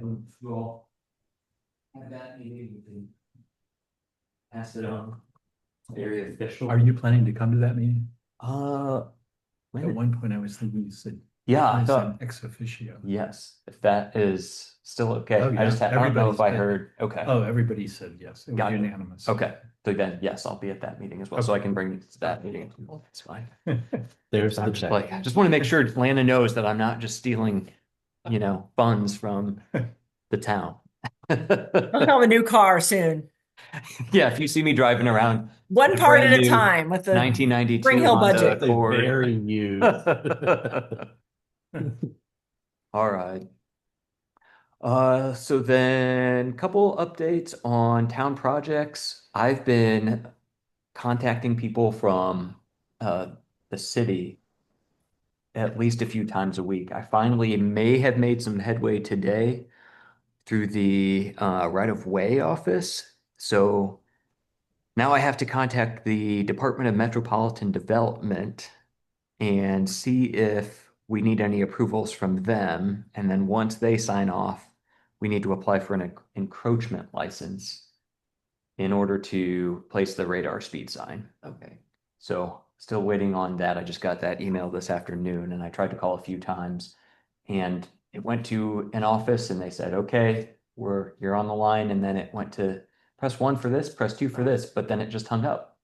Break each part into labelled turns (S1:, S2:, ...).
S1: And we'll have that meeting, we can pass it on. Very official.
S2: Are you planning to come to that meeting?
S1: Uh, when
S2: At
S1: did-
S2: one point, I was thinking you said.
S1: yeah,
S2: I
S1: I
S2: said
S1: thought,
S2: Ex officio.
S1: yes, if that is still okay,
S2: Oh,
S1: I just,
S2: yeah,
S1: had- I don't know
S2: everybody's
S1: if I
S2: been-
S1: heard, okay.
S2: Oh, everybody said yes. It was
S1: Got it.
S2: unanimous.
S1: Okay, so then, yes, I'll be at that meeting as well, so I can bring it to that meeting. That's fine.
S3: There's
S1: I'm
S3: the
S1: just
S3: check.
S1: like, I just want to make sure Lana knows that I'm not just stealing, you know, funds from the town.
S4: I'll have a new car soon.
S1: Yeah, if you see me driving around
S4: One part at
S1: Brand
S4: a
S1: new
S4: time with the,
S1: nineteen ninety-two.
S4: Spring Hill budget.
S3: Very you.
S1: All right. Uh, so then, couple updates on town projects. I've been contacting people from uh the city at least a few times a week. I finally may have made some headway today through the uh right-of-way office. So now I have to contact the Department of Metropolitan Development and see if we need any approvals from them. And then once they sign off, we need to apply for an en- encroachment license in order to place the radar speed sign. Okay. So still waiting on that. I just got that email this afternoon and I tried to call a few times. And it went to an office and they said, okay, we're, you're on the line. And then it went to press one for this, press two for this, but then it just hung up.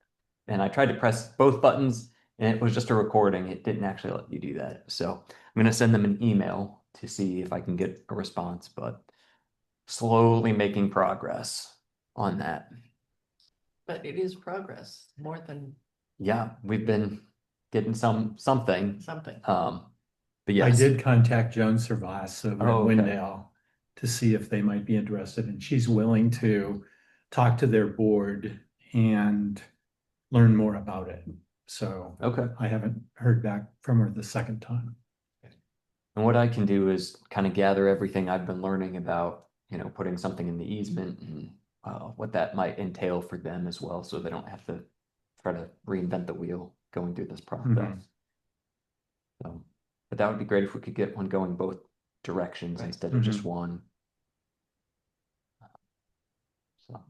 S1: And I tried to press both buttons and it was just a recording. It didn't actually let you do that. So I'm gonna send them an email to see if I can get a response, but slowly making progress on that.
S5: But it is progress, more than
S1: Yeah, we've been getting some, something,
S5: something.
S1: um, but
S2: I
S1: yes.
S2: did contact Joan Servais over
S1: Oh,
S2: at
S1: okay.
S2: Windale to see if they might be interested, and she's willing to talk to their board and learn more about it. So
S1: Okay.
S2: I haven't heard back from her the second time.
S1: And what I can do is kind of gather everything I've been learning about, you know, putting something in the easement and uh, what that might entail for them as well, so they don't have to try to reinvent the wheel going through this process. So, but that would be great if we could get one going both directions
S5: Right.
S1: instead of just one. So,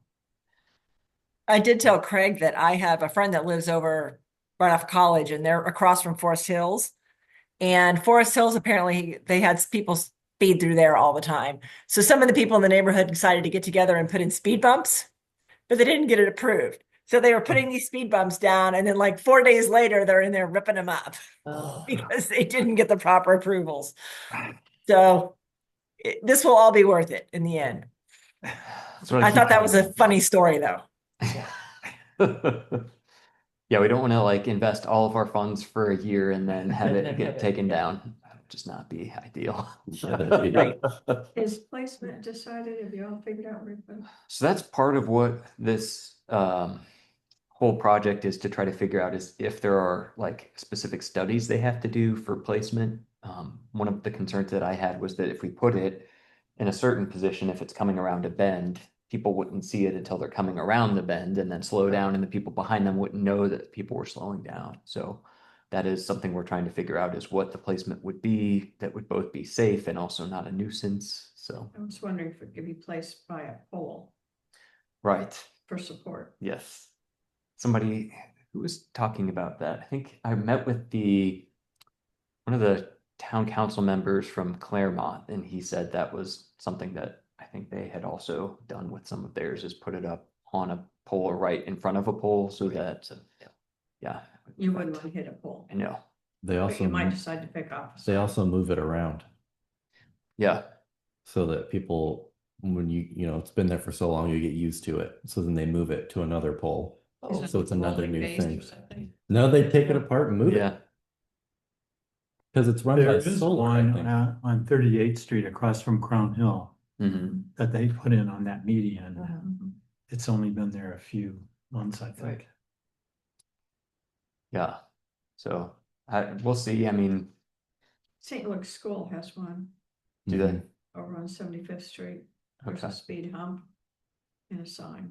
S4: I did tell Craig that I have a friend that lives over right off college and they're across from Forest Hills. And Forest Hills, apparently they had s- people speed through there all the time. So some of the people in the neighborhood decided to get together and put in speed bumps, but they didn't get it approved. So they were putting these speed bumps down and then like four days later, they're in there ripping them up. because they didn't get the proper approvals. So it, this will all be worth it in the end.
S1: that's what
S4: I
S1: keep
S4: thought that
S1: telling
S4: was a
S1: them.
S4: funny story, though.
S1: Yeah, we don't want to like invest all of our funds for a year and then have it
S5: Then have
S1: get
S5: it,
S1: taken
S5: yeah.
S1: down. That would just not be ideal.
S3: Right.
S6: Is placement decided? Have you all figured out? where to-
S1: So that's part of what this um whole project is to try to figure out is if there are like specific studies they have to do for placement. Um, one of the concerns that I had was that if we put it in a certain position, if it's coming around a bend, people wouldn't see it until they're coming around the bend and then slow down and the people behind them wouldn't know that people were slowing down. So that is something we're trying to figure out is what the placement would be that would both be safe and also not a nuisance. So,
S6: I was wondering if it could be placed by a pole
S1: right.
S6: for support.
S1: Yes. Somebody who was talking about that. I think I met with the one of the town council members from Claremont, and he said that was something that I think they had also done with some of theirs is put it up on a pole or right in front of a pole so that, yeah.
S6: You wouldn't want to hit a pole,
S1: I know.
S3: They
S6: but
S3: also,
S6: you might
S3: mo-
S6: decide to pick off.
S3: they also move it around
S1: Yeah.
S3: so that people, when you, you know, it's been there for so long, you get used to it. So then they move it to another pole.
S5: Oh,
S3: So it's another
S5: rolling
S3: new
S5: bass or
S3: thing.
S5: something?
S3: No, they take it apart and move
S1: Yeah.
S3: it because it's run
S2: There
S3: by
S2: is
S3: solar, I
S2: one
S3: think.
S2: uh, on Thirty-Eighth Street across from Crown Hill
S1: hmm
S2: that they put in on that median.
S6: Mhm.
S2: It's only been there a few months, I think.
S5: Right.
S1: Yeah. So I, we'll see. I mean,
S6: St. Luke's School has one
S1: do they?
S6: over on Seventy-Fifth Street. There's
S1: Okay.
S6: a speed hump and a sign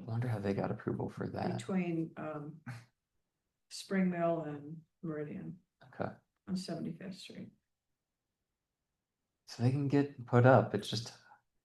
S1: I wonder how they got approval for that.
S6: between um Spring Mill and Meridian
S1: Okay.
S6: on Seventy-Fifth Street.
S1: So they can get put up. It's just